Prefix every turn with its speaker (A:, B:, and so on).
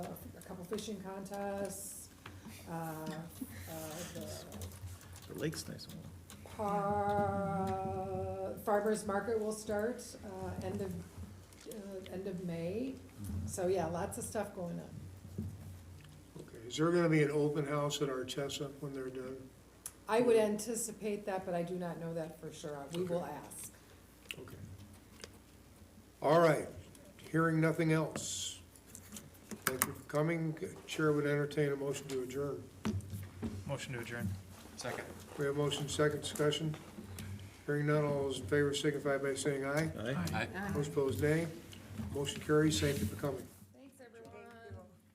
A: fishing contests, uh, uh, the
B: The lake's nice and warm.
A: par, farmer's market will start, uh, end of, uh, end of May. So, yeah, lots of stuff going on.
C: Okay, is there gonna be an open house at Artesa when they're done?
A: I would anticipate that, but I do not know that for sure. We will ask.
C: Okay. All right, hearing nothing else. Thank you for coming. Chair would entertain a motion to adjourn.
B: Motion to adjourn.
D: Second.
C: We have motion, second discussion. Hearing none, all those in favor signify by saying aye.
B: Aye.
D: Aye.
C: Those opposed, nay. Motion carries. Thank you for coming.